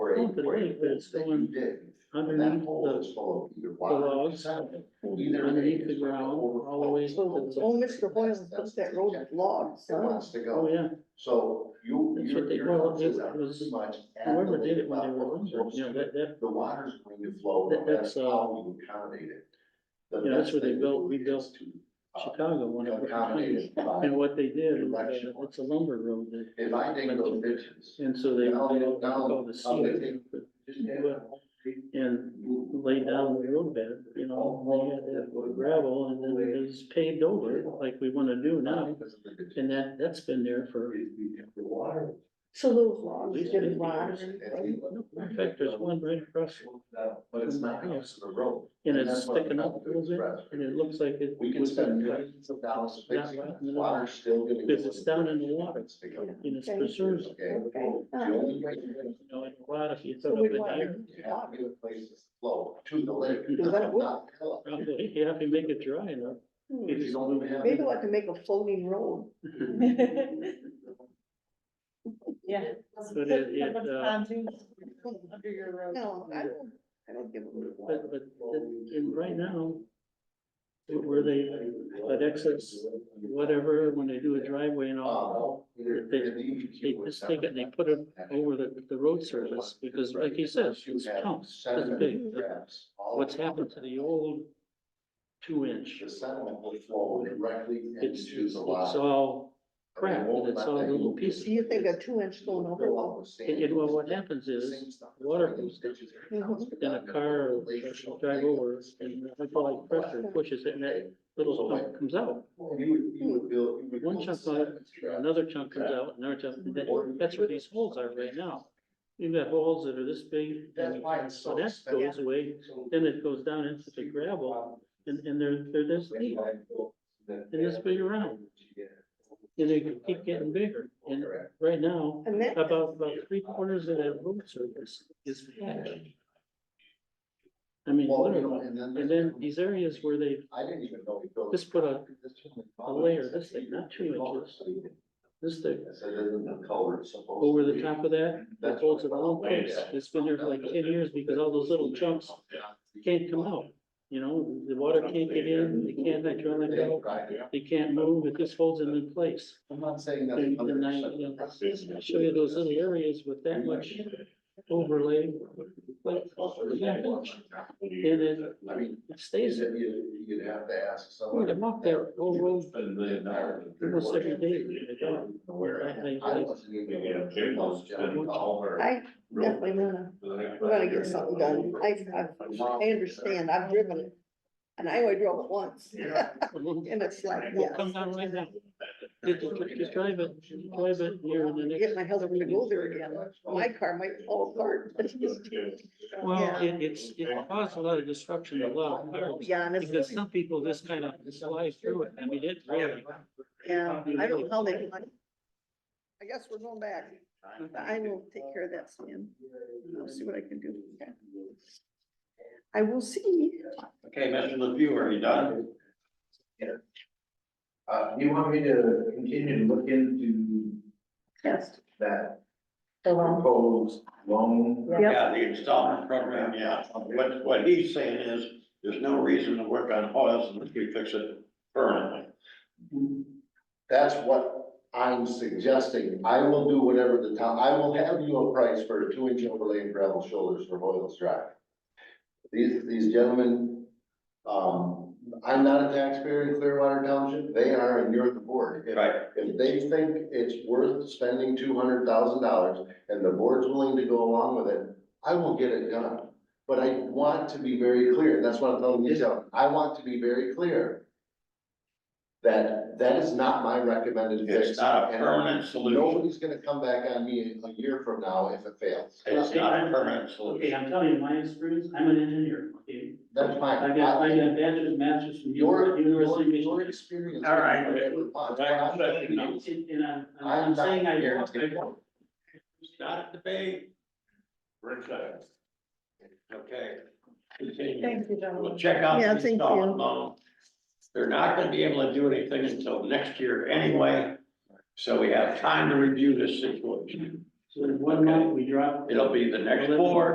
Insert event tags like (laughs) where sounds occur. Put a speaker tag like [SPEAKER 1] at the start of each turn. [SPEAKER 1] break.
[SPEAKER 2] Oh, But wait, but it's
[SPEAKER 1] that you
[SPEAKER 2] going
[SPEAKER 1] dig, and That
[SPEAKER 2] underneath
[SPEAKER 1] hole
[SPEAKER 2] the,
[SPEAKER 1] is full of either
[SPEAKER 2] the
[SPEAKER 1] water.
[SPEAKER 2] logs,
[SPEAKER 1] either
[SPEAKER 2] underneath the
[SPEAKER 1] it's gonna
[SPEAKER 2] ground, all the way. to
[SPEAKER 3] So,
[SPEAKER 2] the-
[SPEAKER 3] oh, Mr. Boylan puts that road with logs,
[SPEAKER 1] It
[SPEAKER 3] huh?
[SPEAKER 1] wants to
[SPEAKER 2] Oh,
[SPEAKER 1] go,
[SPEAKER 2] yeah,
[SPEAKER 1] so you,
[SPEAKER 2] That's what
[SPEAKER 1] you're,
[SPEAKER 2] they-
[SPEAKER 1] you're
[SPEAKER 2] well,
[SPEAKER 1] not too
[SPEAKER 2] it was-
[SPEAKER 1] much. at
[SPEAKER 2] whoever
[SPEAKER 1] the
[SPEAKER 2] did it when they
[SPEAKER 1] level
[SPEAKER 2] were,
[SPEAKER 1] of
[SPEAKER 2] older,
[SPEAKER 1] those
[SPEAKER 2] you know, that, that,
[SPEAKER 1] the water's going to flow,
[SPEAKER 2] That-
[SPEAKER 1] that's
[SPEAKER 2] that's, uh,
[SPEAKER 1] how you accommodate it. The
[SPEAKER 2] yeah, that's
[SPEAKER 1] best
[SPEAKER 2] where they
[SPEAKER 1] thing to
[SPEAKER 2] built-
[SPEAKER 1] do
[SPEAKER 2] we
[SPEAKER 1] is
[SPEAKER 2] built
[SPEAKER 1] to, uh,
[SPEAKER 2] Chicago, one of the
[SPEAKER 1] Accommodate
[SPEAKER 2] counties.
[SPEAKER 1] it by,
[SPEAKER 2] And what they did, was, uh, it's a lumber road that.
[SPEAKER 1] if I dig those ditches,
[SPEAKER 2] And so they, they
[SPEAKER 1] Now-
[SPEAKER 2] all
[SPEAKER 1] now-
[SPEAKER 2] called the
[SPEAKER 1] now they
[SPEAKER 2] seal, but
[SPEAKER 1] just add
[SPEAKER 2] Well, and
[SPEAKER 1] move
[SPEAKER 2] laid uh, down the road bed, you know, they had that with gravel and then it was paved over it like we wanna do now.
[SPEAKER 1] because of the ditches.
[SPEAKER 2] And that, that's been there for,
[SPEAKER 1] If you get The water.
[SPEAKER 3] So those logs
[SPEAKER 2] Least
[SPEAKER 3] get
[SPEAKER 2] fifty
[SPEAKER 3] logged.
[SPEAKER 2] in fact, there's one right across
[SPEAKER 1] But it's not next to the road.
[SPEAKER 2] and
[SPEAKER 1] that's
[SPEAKER 2] it's
[SPEAKER 1] what I'm
[SPEAKER 2] sticking up a
[SPEAKER 1] about to
[SPEAKER 2] little bit
[SPEAKER 1] express.
[SPEAKER 2] and it looks like it.
[SPEAKER 1] We can
[SPEAKER 2] was
[SPEAKER 1] spend
[SPEAKER 2] cut,
[SPEAKER 1] millions of dollars
[SPEAKER 2] Not
[SPEAKER 1] fixing
[SPEAKER 2] right
[SPEAKER 1] it,
[SPEAKER 2] in the middle.
[SPEAKER 1] water's still gonna. go
[SPEAKER 2] Because it's down in the water.
[SPEAKER 1] It's big enough.
[SPEAKER 2] And it's
[SPEAKER 3] Okay.
[SPEAKER 2] preserved,
[SPEAKER 1] Okay.
[SPEAKER 3] Okay.
[SPEAKER 1] The only way you're
[SPEAKER 2] you know, and a lot if you
[SPEAKER 3] So
[SPEAKER 2] throw it
[SPEAKER 3] we
[SPEAKER 2] in
[SPEAKER 3] want
[SPEAKER 2] there.
[SPEAKER 3] to
[SPEAKER 1] You have to get a place to flow to the lake.
[SPEAKER 2] Is
[SPEAKER 3] that what-
[SPEAKER 1] Not fill up.
[SPEAKER 2] Probably, yeah, if you make it dry enough.
[SPEAKER 3] Hmm.
[SPEAKER 1] If you don't even have.
[SPEAKER 3] Maybe we'll have to make a (laughs) floating road.
[SPEAKER 4] (laughs) Yeah.
[SPEAKER 2] But it- it,
[SPEAKER 4] Put
[SPEAKER 2] uh,
[SPEAKER 4] pontoons Under your road.
[SPEAKER 3] No, I don't, I don't give a.
[SPEAKER 2] But, but, it- and right now, where they, but excess, whatever, when they do a driveway and all,
[SPEAKER 1] Uh, either-
[SPEAKER 2] They-
[SPEAKER 1] the DEQ
[SPEAKER 2] they
[SPEAKER 1] would
[SPEAKER 2] just take it and they put it over the, the road surface, because like he says,
[SPEAKER 1] You
[SPEAKER 2] it's
[SPEAKER 1] have
[SPEAKER 2] counts, it's
[SPEAKER 1] sediment
[SPEAKER 2] big.
[SPEAKER 1] traps all
[SPEAKER 2] What's
[SPEAKER 1] over.
[SPEAKER 2] happened to the old two inch,
[SPEAKER 1] The sediment will flow directly
[SPEAKER 2] it's,
[SPEAKER 1] into
[SPEAKER 2] it's
[SPEAKER 1] the lot.
[SPEAKER 2] all
[SPEAKER 1] They
[SPEAKER 2] crap,
[SPEAKER 1] won't
[SPEAKER 2] and it's
[SPEAKER 1] let
[SPEAKER 2] all
[SPEAKER 1] that
[SPEAKER 2] little
[SPEAKER 1] move.
[SPEAKER 2] pieces.
[SPEAKER 3] Do you think a two inch stone
[SPEAKER 1] Fill
[SPEAKER 3] overlog?
[SPEAKER 1] up with sand.
[SPEAKER 2] And, and well, what happens is,
[SPEAKER 1] Same stuff.
[SPEAKER 2] water comes
[SPEAKER 1] Those ditches are
[SPEAKER 3] Mhm.
[SPEAKER 1] constant.
[SPEAKER 2] then a car or a truck will drive over, and hydraulic pressure pushes it, and that little chunk comes out.
[SPEAKER 1] Well, You would, you would build. you would
[SPEAKER 2] One
[SPEAKER 1] build
[SPEAKER 2] chunk
[SPEAKER 1] sediment
[SPEAKER 2] out,
[SPEAKER 1] traps.
[SPEAKER 2] Another chunk comes out, another chunk, and that- that's where these holes are right now. You've got holes that are this big,
[SPEAKER 1] That's
[SPEAKER 2] and
[SPEAKER 1] why it's
[SPEAKER 2] so
[SPEAKER 1] so.
[SPEAKER 2] that goes away, then it goes down into the gravel, and, and they're, they're this deep, and this big around, and they keep getting bigger. And right now,
[SPEAKER 3] And that,
[SPEAKER 2] about, about three quarters of that road surface is patch. I mean, literally, and then these areas where they,
[SPEAKER 1] I didn't even know we built.
[SPEAKER 2] Just put a- a layer, this thing, not two inches. this thick,
[SPEAKER 1] So then the culvert supposed. to
[SPEAKER 2] over the
[SPEAKER 1] be-
[SPEAKER 2] top of that, that holds it all in place. It's been there for like ten years because all those little chunks can't come out. You know, the water can't get in, they can't hydraulic out, they can't move, it just holds them in place.
[SPEAKER 1] I'm not saying that.
[SPEAKER 2] And and I, you know, show you those little areas with that much overlay, but
[SPEAKER 5] And
[SPEAKER 2] then-
[SPEAKER 1] I mean,
[SPEAKER 2] it
[SPEAKER 1] is
[SPEAKER 2] stays
[SPEAKER 1] it,
[SPEAKER 2] there.
[SPEAKER 1] you, you'd have to ask
[SPEAKER 2] Boy,
[SPEAKER 1] someone.
[SPEAKER 2] I walk that whole road almost every day. I- I- I-
[SPEAKER 3] I definitely wanna,
[SPEAKER 5] We're
[SPEAKER 3] wanna get something done. I, I, I understand. I've driven it. And I only drove it once. And it's like,
[SPEAKER 2] Well,
[SPEAKER 3] yeah.
[SPEAKER 2] come down right now. Just, just drive it, drive it here in the next.
[SPEAKER 3] Get my husband to go there again. My car might fall apart. (laughs)
[SPEAKER 2] Well,
[SPEAKER 3] Yeah.
[SPEAKER 2] it, it's, it caused a lot of destruction to a lot of cars,
[SPEAKER 3] Yeah, and
[SPEAKER 2] because
[SPEAKER 3] it's,
[SPEAKER 2] some people just kind of slide through it, I mean, it really.
[SPEAKER 3] yeah, I don't know how they. I guess we're going back. I will take care of that, Stan. I'll see what I can do. Okay. I will see.
[SPEAKER 6] Okay, Mr. LePew, are you done?
[SPEAKER 5] Uh, do you want me to continue to look into
[SPEAKER 3] Yes.
[SPEAKER 5] that
[SPEAKER 4] The long-
[SPEAKER 5] proposed loan?
[SPEAKER 3] Yep.
[SPEAKER 6] Yeah, the installment program, yeah. What, what he's saying is, there's no reason to work on oils unless we fix it permanently.
[SPEAKER 1] That's what I'm suggesting. I will do whatever the town, I will have you a price for a two inch overlay and gravel shoulders for Hoyle's Drive. These, these gentlemen, um, I'm not a taxpayer in Clearwater Township. They are and you're the board. If-
[SPEAKER 6] Right.
[SPEAKER 1] If they think it's worth spending two hundred thousand dollars and the board's willing to go along with it, I will get it done. But I want to be very clear, and that's what I'm telling you, Joe. I want to be very clear. That, that is not my recommended fix.
[SPEAKER 6] It's not a
[SPEAKER 1] and
[SPEAKER 6] permanent solution.
[SPEAKER 1] Nobody's gonna come back on me a year from now if it fails.
[SPEAKER 6] It's not a permanent
[SPEAKER 2] Okay,
[SPEAKER 6] solution.
[SPEAKER 2] I'm telling you, my experience, I'm an engineer, okay?
[SPEAKER 1] That's
[SPEAKER 2] I
[SPEAKER 1] fine.
[SPEAKER 2] got, I got bachelor's, master's from
[SPEAKER 1] Your, your,
[SPEAKER 2] University of
[SPEAKER 1] your
[SPEAKER 2] Michigan.
[SPEAKER 1] experience.
[SPEAKER 6] All right.
[SPEAKER 2] And, and I'm,
[SPEAKER 1] I'm
[SPEAKER 2] I'm
[SPEAKER 1] not
[SPEAKER 2] saying I.
[SPEAKER 1] here.
[SPEAKER 6] Not a debate.
[SPEAKER 5] Rick, uh,
[SPEAKER 6] Okay. Continue.
[SPEAKER 4] Thank you,
[SPEAKER 6] We'll
[SPEAKER 4] gentlemen.
[SPEAKER 6] check out
[SPEAKER 3] Yeah,
[SPEAKER 6] the
[SPEAKER 3] thank you.
[SPEAKER 6] installment loan. They're not gonna be able to do anything until next year anyway, so we have time to review this situation.
[SPEAKER 2] So in one month, we dropped.
[SPEAKER 6] It'll be the next
[SPEAKER 2] Eleven.
[SPEAKER 6] four,